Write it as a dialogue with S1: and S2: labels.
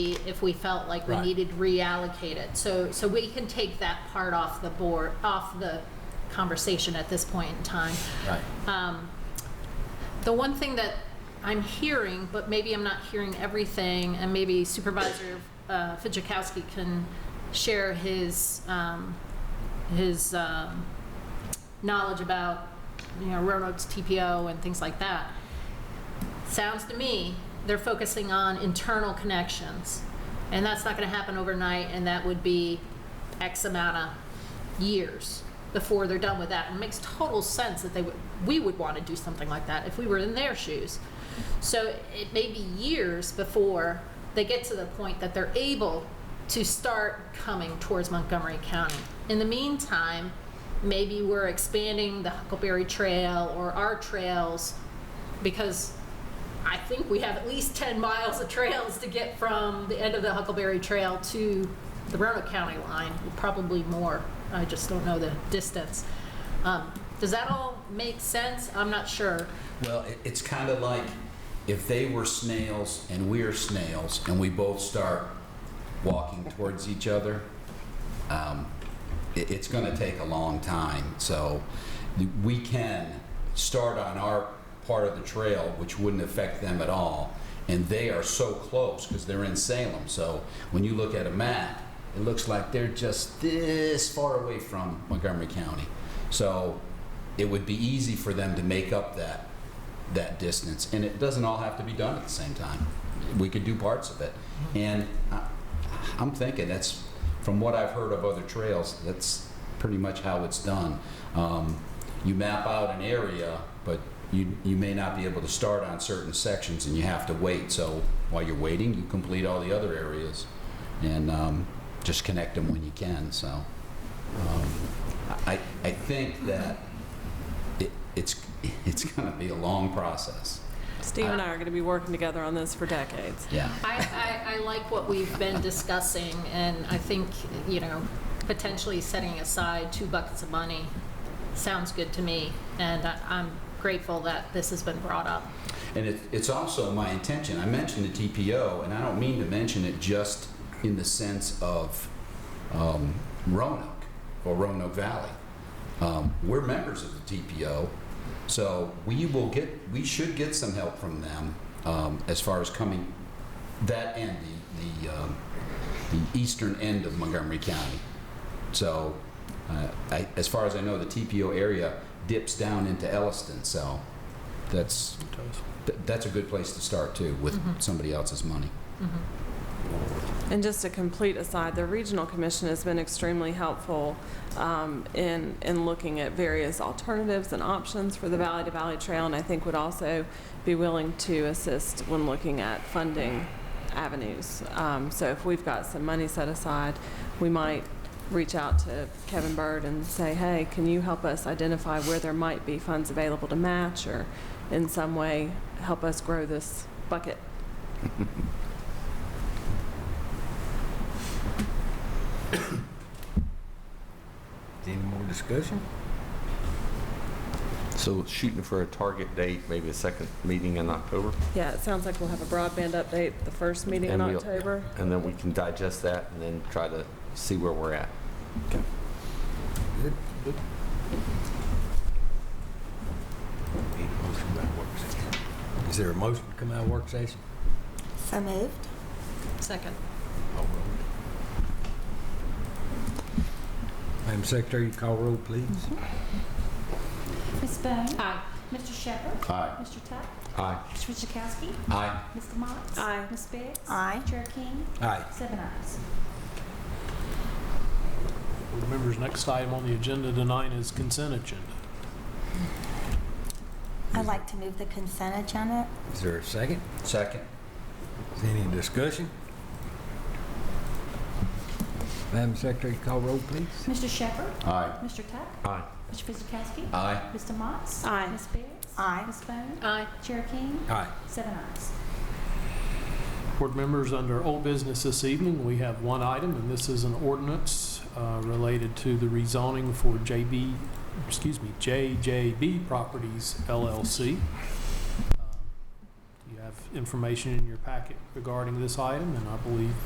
S1: if we felt like we
S2: Right.
S1: needed to reallocate it. So, so we can take that part off the board, off the conversation at this point in time.
S2: Right.
S1: Um, The one thing that I'm hearing, but maybe I'm not hearing everything, and maybe Supervisor uh, Fidzikowski can share his, um, his um, knowledge about, you know, Roanoke's TPO and things like that. Sounds to me, they're focusing on internal connections, and that's not going to happen overnight, and that would be X amount of years before they're done with that. And it makes total sense that they would, we would want to do something like that if we were in their shoes. So it may be years before they get to the point that they're able to start coming towards Montgomery County. In the meantime, maybe we're expanding the Huckleberry Trail or our trails because I think we have at least 10 miles of trails to get from the end of the Huckleberry Trail to the Roanoke County line, probably more. I just don't know the distance. Um, Does that all make sense? I'm not sure.
S2: Well, it, it's kind of like if they were snails and we're snails and we both start walking towards each other, um, it, it's going to take a long time. So we can start on our part of the trail, which wouldn't affect them at all. And they are so close because they're in Salem. So when you look at a map, it looks like they're just this far away from Montgomery County. So it would be easy for them to make up that that distance. And it doesn't all have to be done at the same time. We could do parts of it. And I- I'm thinking that's, from what I've heard of other trails, that's pretty much how it's done. Um, You map out an area, but you, you may not be able to start on certain sections and you have to wait. So while you're waiting, you complete all the other areas and um, just connect them when you can, so. um, I, I think that it, it's it's going to be a long process.
S3: Steve and I are going to be working together on this for decades.
S2: Yeah.
S1: I, I, I like what we've been discussing, and I think, you know, potentially setting aside two buckets of money sounds good to me, and I- I'm grateful that this has been brought up.
S2: And it, it's also my intention. I mentioned the TPO, and I don't mean to mention it just in the sense of um, Roanoke or Roanoke Valley. Um, we're members of the TPO, so we will get we should get some help from them um, as far as coming that end, the the, um, the eastern end of Montgomery County. So, uh, I, as far as I know, the TPO area dips down into Elliston, so that's, th- that's a good place to start too, with somebody else's money.
S1: Mm-hmm.
S3: And just a complete aside, the Regional Commission has been extremely helpful um, in, in looking at various alternatives and options for the Valley to Valley Trail, and I think would also be willing to assist when looking at funding avenues. Um, So if we've got some money set aside, we might reach out to Kevin Bird and say, hey, can you help us identify where there might be funds available to match, or in some way, help us grow this bucket?
S4: Any more discussion?
S5: So shooting for a target date, maybe a second meeting in October?
S3: Yeah, it sounds like we'll have a broadband update the first meeting in
S5: and we'll-
S3: October.
S5: And then we can digest that and then try to see where we're at.
S4: Good, good. Need a motion to come out of work session. Is there a motion to come out of work session?
S6: So moved.
S1: Second.
S4: All roll. Madam Secretary, you call roll, please.
S7: Ms. Bone.
S1: Aye.
S7: Mr. Shepherd.
S2: Aye.
S7: Mr. Tuck.
S5: Aye.
S7: Mr. Wojciechowski.
S2: Aye.
S7: Mr. Motts.
S3: Aye.
S7: Ms. Biggs.
S6: Aye.
S7: Chair King.
S4: Aye.
S7: Seven ayes.
S8: Board members, next item on the agenda tonight is consent agenda.
S6: I'd like to move the consent agenda.
S4: Is there a second?
S2: Second?
S4: Is any discussion? Madam Secretary, you call roll, please.
S7: Mr. Shepherd.
S2: Aye.
S7: Mr. Tuck.
S5: Aye.
S7: Mr. Wojciechowski.
S2: Aye.
S7: Mr. Motts.
S3: Aye.
S7: Ms. Biggs.
S6: Aye.
S7: Ms. Bone.
S1: Aye.
S7: Chair King.
S4: Aye.
S7: Seven ayes.
S8: Board members, under old business this evening, we have one item, and this is an ordinance uh, related to the rezoning for JB, excuse me, JJB Properties LLC. Um, Uh, Do you have have information in your packet regarding this item, and I believe